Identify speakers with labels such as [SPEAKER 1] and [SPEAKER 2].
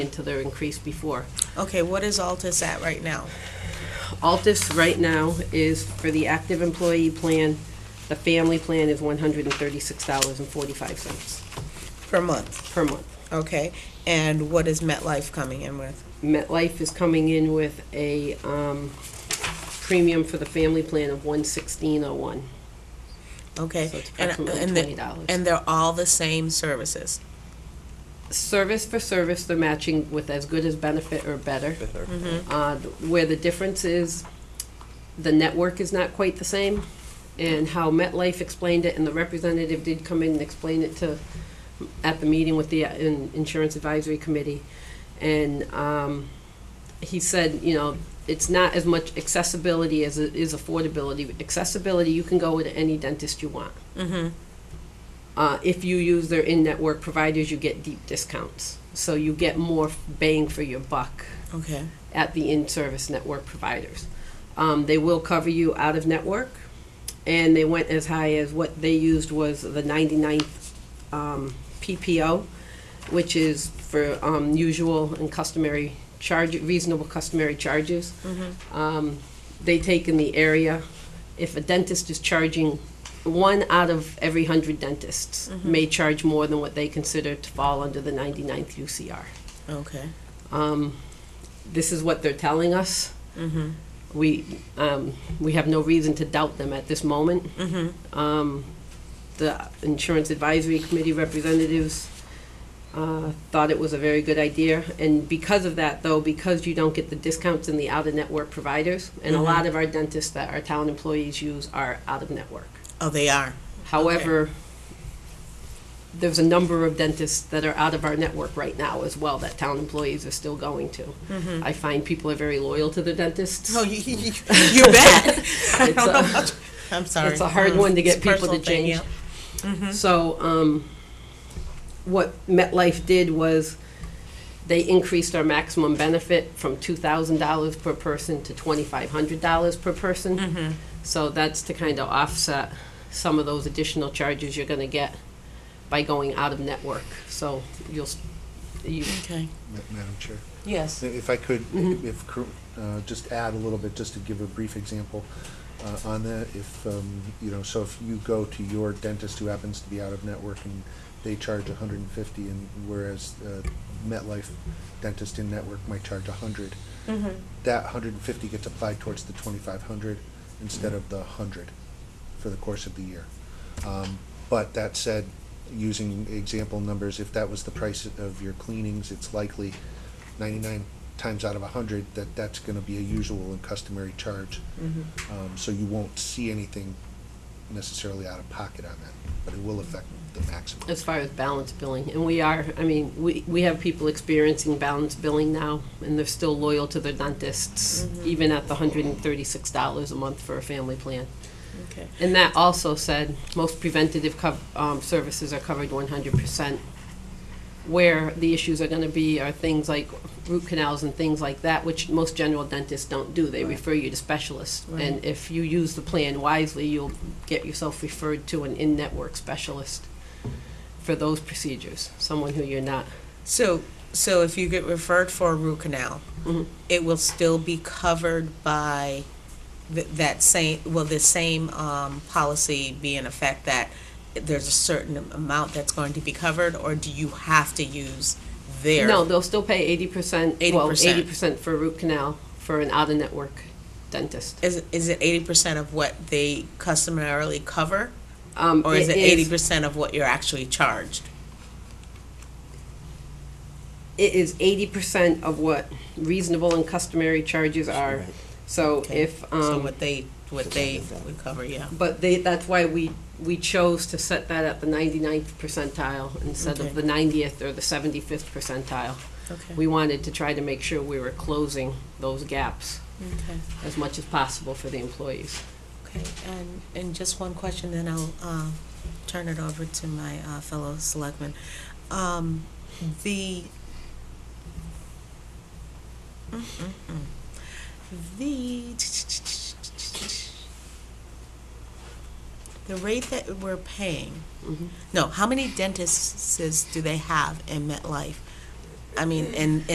[SPEAKER 1] until they're increased before.
[SPEAKER 2] Okay, what is Altus at right now?
[SPEAKER 1] Altus right now is, for the active employee plan, the family plan is one hundred and thirty-six dollars and forty-five cents
[SPEAKER 2] Per month,
[SPEAKER 1] per month.
[SPEAKER 2] okay? And what is MetLife coming in with?
[SPEAKER 1] MetLife is coming in with a, um, premium for the family plan of one sixteen oh one.
[SPEAKER 2] Okay?
[SPEAKER 1] So it's
[SPEAKER 2] and-
[SPEAKER 1] approximately
[SPEAKER 2] and the-
[SPEAKER 1] $20.
[SPEAKER 2] And they're all the same services?
[SPEAKER 1] Service for service, they're matching with as good as benefit or better.
[SPEAKER 2] Mm-hmm,
[SPEAKER 1] Uh, where the difference is, the network is not quite the same, and how MetLife explained it, and the representative did come in and explain it to, at the meeting with the uh, in- Insurance Advisory Committee, and um, he said, you know, it's not as much accessibility as it is affordability. Accessibility, you can go to any dentist you want.
[SPEAKER 2] mm-hmm.
[SPEAKER 1] Uh, If you use their in-network providers, you get deep discounts, so you get more bang for your buck
[SPEAKER 2] Okay,
[SPEAKER 1] at the in-service network providers. Um, they will cover you out of network, and they went as high as what they used was the 99th um, PPO, which is for um, usual and customary charge, reasonable customary charges. Um, they take in the area. If a dentist is charging, one out of every hundred dentists may charge more than what they consider to fall under the 99th UCR
[SPEAKER 2] okay.
[SPEAKER 1] um, this is what they're telling us.
[SPEAKER 2] mm-hmm,
[SPEAKER 1] We, um, we have no reason to doubt them at this moment.
[SPEAKER 2] mm-hmm.
[SPEAKER 1] Um, the Insurance Advisory Committee representatives, uh, thought it was a very good idea. And because of that, though, because you don't get the discounts in the out-of-network providers, and a lot of our dentists that our town employees use are out-of-network.
[SPEAKER 2] Oh, they are?
[SPEAKER 1] However, there's a number of dentists that are out of our network right now as well that town employees are still going to. I find people are very loyal to their dentists.
[SPEAKER 2] Mm-hmm. Oh, you, you, you bet. I
[SPEAKER 1] It's
[SPEAKER 2] don't know
[SPEAKER 1] a-
[SPEAKER 2] much- I'm sorry.
[SPEAKER 1] It's a hard one to
[SPEAKER 2] It's a
[SPEAKER 1] get people to
[SPEAKER 2] personal thing,
[SPEAKER 1] change.
[SPEAKER 2] yeah. Mm-hmm.
[SPEAKER 1] So, um, what MetLife did was they increased our maximum benefit from two thousand dollars per person to twenty-five hundred dollars per
[SPEAKER 2] Mm-hmm.
[SPEAKER 1] person. So that's to kind of offset some of those additional charges you're gonna get by going out of network. So you'll, s- you,
[SPEAKER 2] Okay,
[SPEAKER 3] Ma- Madam Chair,
[SPEAKER 2] yes.
[SPEAKER 3] if I could, if, cor- uh, just add a little bit, just to give a brief example uh, on that, if, um, you know, so if you go to your dentist who happens to be out of network and they charge a hundred and fifty, and whereas uh, MetLife dentist in network might charge a hundred,
[SPEAKER 2] Mm-hmm,
[SPEAKER 3] that hundred and fifty gets applied towards the twenty-five hundred instead of the hundred for the course of the year. Um, But that said, using example numbers, if that was the price of your cleanings, it's likely ninety-nine times out of a hundred that that's gonna be a usual and customary charge.
[SPEAKER 2] mm-hmm.
[SPEAKER 3] Um, So you won't see anything necessarily out of pocket on that, but it will affect the maximum.
[SPEAKER 1] as far as balance billing, and we are, I mean, we, we have people experiencing balance billing now, and they're still loyal to their dentists, even at the hundred and thirty-six dollars a month for a family plan.
[SPEAKER 2] Okay.
[SPEAKER 1] And that also said, most preventative cov- um, services are covered one hundred percent. Where the issues are gonna be are things like root canals and things like that, which most general dentists don't do. They refer you to specialists. And if you use the plan wisely, you'll get yourself referred to an in-network specialist for those procedures, someone who you're not.
[SPEAKER 2] So, so if you get referred for a root canal, it will still be covered by th- that same, will the same um, policy be in effect that there's a certain amount that's going to be covered, or do you have to use their?
[SPEAKER 1] No, they'll still pay eighty percent, well,
[SPEAKER 2] 80%.
[SPEAKER 1] eighty percent for root canal for an out-of-network dentist.
[SPEAKER 2] Is, is it eighty percent of what they customarily cover,
[SPEAKER 1] Um,
[SPEAKER 2] or is it eighty percent of what you're actually charged?
[SPEAKER 1] it is eighty percent of what reasonable and customary charges are. So
[SPEAKER 2] Okay.
[SPEAKER 1] if,
[SPEAKER 2] So
[SPEAKER 1] um,
[SPEAKER 2] what they, what they would cover, yeah.
[SPEAKER 1] but they, that's why we, we chose to set that at the 99th percentile instead
[SPEAKER 2] Okay.
[SPEAKER 1] of the ninetieth or the seventy-fifth percentile.
[SPEAKER 2] Okay.
[SPEAKER 1] We wanted to try to make sure we were closing those gaps
[SPEAKER 2] Okay.
[SPEAKER 1] as much as possible for the employees.
[SPEAKER 2] Okay, and, and just one question, then I'll, uh, turn it over to my, uh, fellow selectmen. Um, the. Mm-mm-mm. The. The rate that we're paying,
[SPEAKER 1] Mhm.
[SPEAKER 2] no, how many dentists do they have in MetLife? I mean, in,